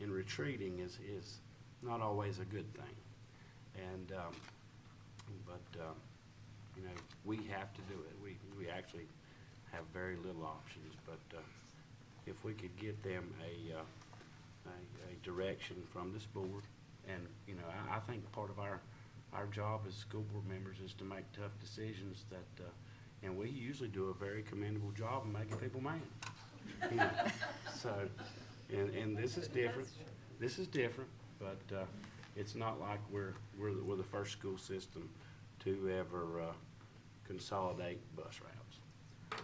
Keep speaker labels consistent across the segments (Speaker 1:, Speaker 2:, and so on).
Speaker 1: and retreating is, is not always a good thing. And, um, but, um, you know, we have to do it. We, we actually have very little options, but, uh, if we could get them a, uh, a, a direction from this board. And, you know, I, I think part of our, our job as school board members is to make tough decisions that, uh, and we usually do a very commendable job of making people mad. You know, So, and, and this is different. This is different, but, uh, it's not like we're, we're, the- we're the first school system to ever, uh, consolidate bus routes.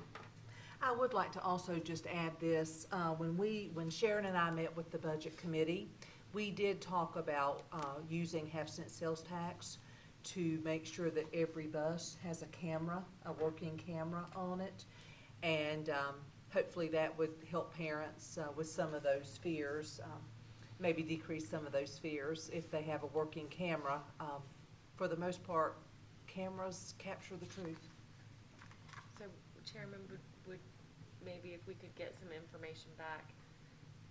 Speaker 2: I would like to also just add this, uh, when we, when Sharon and I met with the budget committee, we did talk about, uh, using half cent sales tax to make sure that every bus has a camera, a working camera on it. And, um, hopefully that would help parents, uh, with some of those fears, um, maybe decrease some of those fears if they have a working camera. Um, for the most part, cameras capture the truth.
Speaker 3: So Chairman, would, would, maybe if we could get some information back,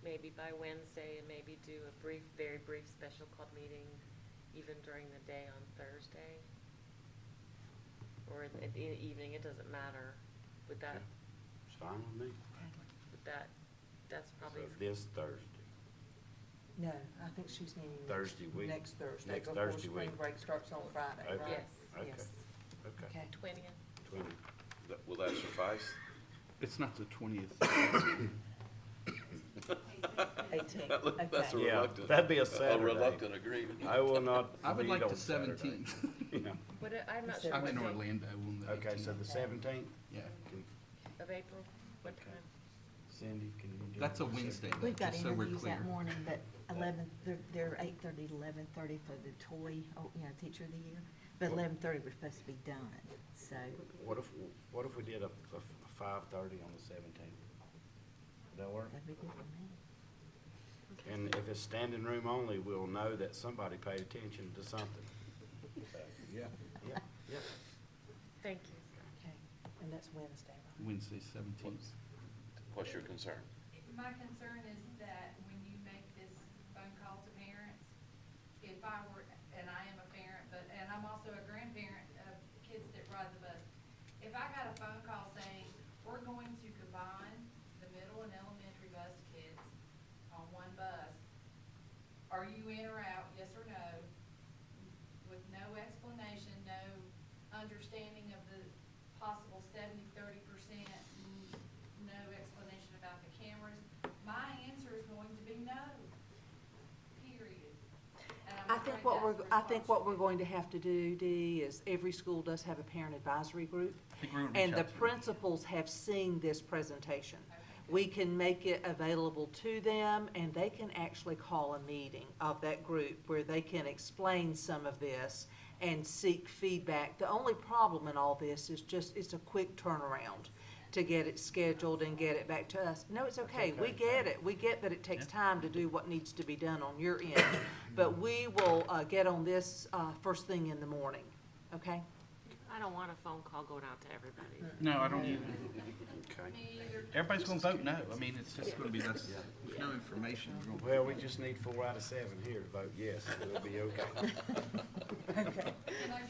Speaker 3: maybe by Wednesday, and maybe do a brief, very brief special club meeting, even during the day on Thursday? Or in in the evening, it doesn't matter, would that,
Speaker 1: It's fine with me.
Speaker 3: would that, that's
Speaker 1: So
Speaker 3: probably,
Speaker 1: this Thursday.
Speaker 2: No, I think she's needing. next-
Speaker 1: Thursday week.
Speaker 2: Next Thursday.
Speaker 1: Next
Speaker 2: before
Speaker 1: Thursday
Speaker 2: spring
Speaker 1: week.
Speaker 2: break starts on Friday,
Speaker 1: Okay.
Speaker 2: right?
Speaker 3: yes,
Speaker 1: Okay.
Speaker 2: Yes.
Speaker 1: Okay.
Speaker 2: Okay.
Speaker 3: twentieth?
Speaker 1: Twenty.
Speaker 4: That- Will that suffice?
Speaker 5: It's not the twentieth.
Speaker 2: Eighteen,
Speaker 4: That look- That's a
Speaker 2: okay.
Speaker 1: Yeah,
Speaker 4: reluctant.
Speaker 1: that'd be a Saturday.
Speaker 4: A reluctant agreement.
Speaker 1: I will not
Speaker 5: I would
Speaker 1: read
Speaker 5: like
Speaker 1: on
Speaker 5: the
Speaker 1: Saturday.
Speaker 5: seventeenth.
Speaker 1: Yeah.
Speaker 3: What, uh, I'm not sure
Speaker 2: said
Speaker 5: I'm
Speaker 3: what
Speaker 5: in
Speaker 3: date
Speaker 5: Orlando on the
Speaker 1: Okay, so
Speaker 5: eighteenth.
Speaker 1: the seventeenth,
Speaker 5: Yeah,
Speaker 3: of April, what
Speaker 1: Okay.
Speaker 3: time?
Speaker 1: Cindy, can you do?
Speaker 5: that's a
Speaker 1: the 17th?
Speaker 5: Wednesday, though,
Speaker 6: We've got
Speaker 5: just so we're
Speaker 6: interviews
Speaker 5: clear.
Speaker 6: that morning, but eleven, they're, they're eight thirty to eleven thirty for the toy, oh, you know, teacher of the year. But eleven thirty, we're supposed to be done, so,
Speaker 1: What if, what if we did a, a five-thirty on the seventeenth? Would that work?
Speaker 6: that'd be good for me.
Speaker 1: And if it's standing room only, we'll know that somebody paid attention to something.
Speaker 5: Yeah.
Speaker 1: Yeah, yeah.
Speaker 3: Thank you.
Speaker 2: Okay, and that's Wednesday, right?
Speaker 5: Wednesday seventeenth.
Speaker 4: What's your concern?
Speaker 7: My concern is that when you make this phone call to parents, if I were, and I am a parent, but, and I'm also a grandparent of kids that ride the bus. If I got a phone call saying, we're going to combine the middle and elementary bus kids on one bus, are you in or out, yes or no? With no explanation, no understanding of the possible seventy, thirty percent, no explanation about the cameras, my answer is going to be no, period. And I'm
Speaker 2: I think
Speaker 7: afraid
Speaker 2: what
Speaker 7: that's
Speaker 2: we're, I think what we're
Speaker 7: responsible.
Speaker 2: going to have to do, Dee, is every school does have a parent advisory group.
Speaker 5: I think we're gonna reach
Speaker 2: And the
Speaker 5: out to them.
Speaker 2: principals have seen this presentation. We can make it available to them, and they can actually call a meeting of that group where they can explain some of this and seek feedback. The only problem in all this is just, it's a quick turnaround to get it scheduled and get it back to us. No, it's okay, we get it, we get that it takes time to do what needs to be done on your end, but we will, uh, get on this, uh, first thing in the morning, okay?
Speaker 3: I don't want a phone call going out to everybody.
Speaker 5: No, I don't either.
Speaker 1: Okay.
Speaker 7: Me either.
Speaker 5: Everybody's gonna vote no. I mean, it's just gonna be, that's, with no information. we're gonna-
Speaker 1: Well, we just need four out of seven here to vote yes, and we'll be okay.
Speaker 7: You're not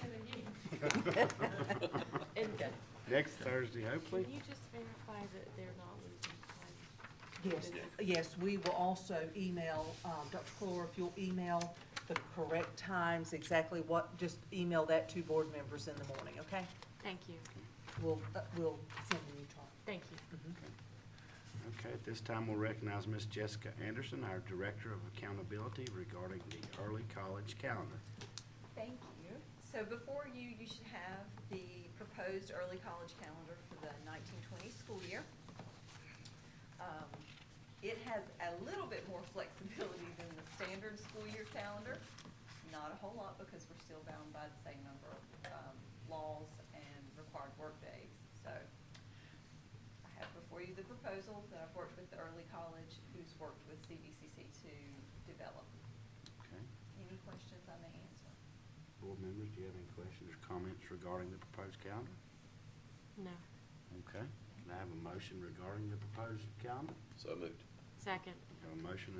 Speaker 7: gonna get it.
Speaker 3: And
Speaker 1: Next Thursday,
Speaker 3: can
Speaker 1: hopefully.
Speaker 3: you just verify that they're not losing time?
Speaker 2: Yes, yes, we will also email, um, Dr. Clore, if you'll email the correct times, exactly what, just email that to board members in the morning, okay?
Speaker 3: Thank you,
Speaker 2: We'll, uh, we'll send you a chart.
Speaker 3: thank you.
Speaker 1: Okay, at this time, we'll recognize Miss Jessica Anderson, our Director of Accountability regarding the early college calendar.
Speaker 8: Thank you. So before you, you should have the proposed early college calendar for the nineteen twenty school year. Um, It has a little bit more flexibility than the standard school year calendar, not a whole lot because we're still bound by the same number of um, laws and required workdays. So I have before you the proposal that I've worked with the early college, who's worked with CBCC to develop.
Speaker 1: Okay.
Speaker 8: Any questions I may answer?
Speaker 1: Board members, do you have any questions or comments regarding the proposed calendar?
Speaker 3: No,
Speaker 1: Okay, can I have a motion regarding the proposed calendar?
Speaker 4: So moved.
Speaker 3: second.
Speaker 1: Have a motion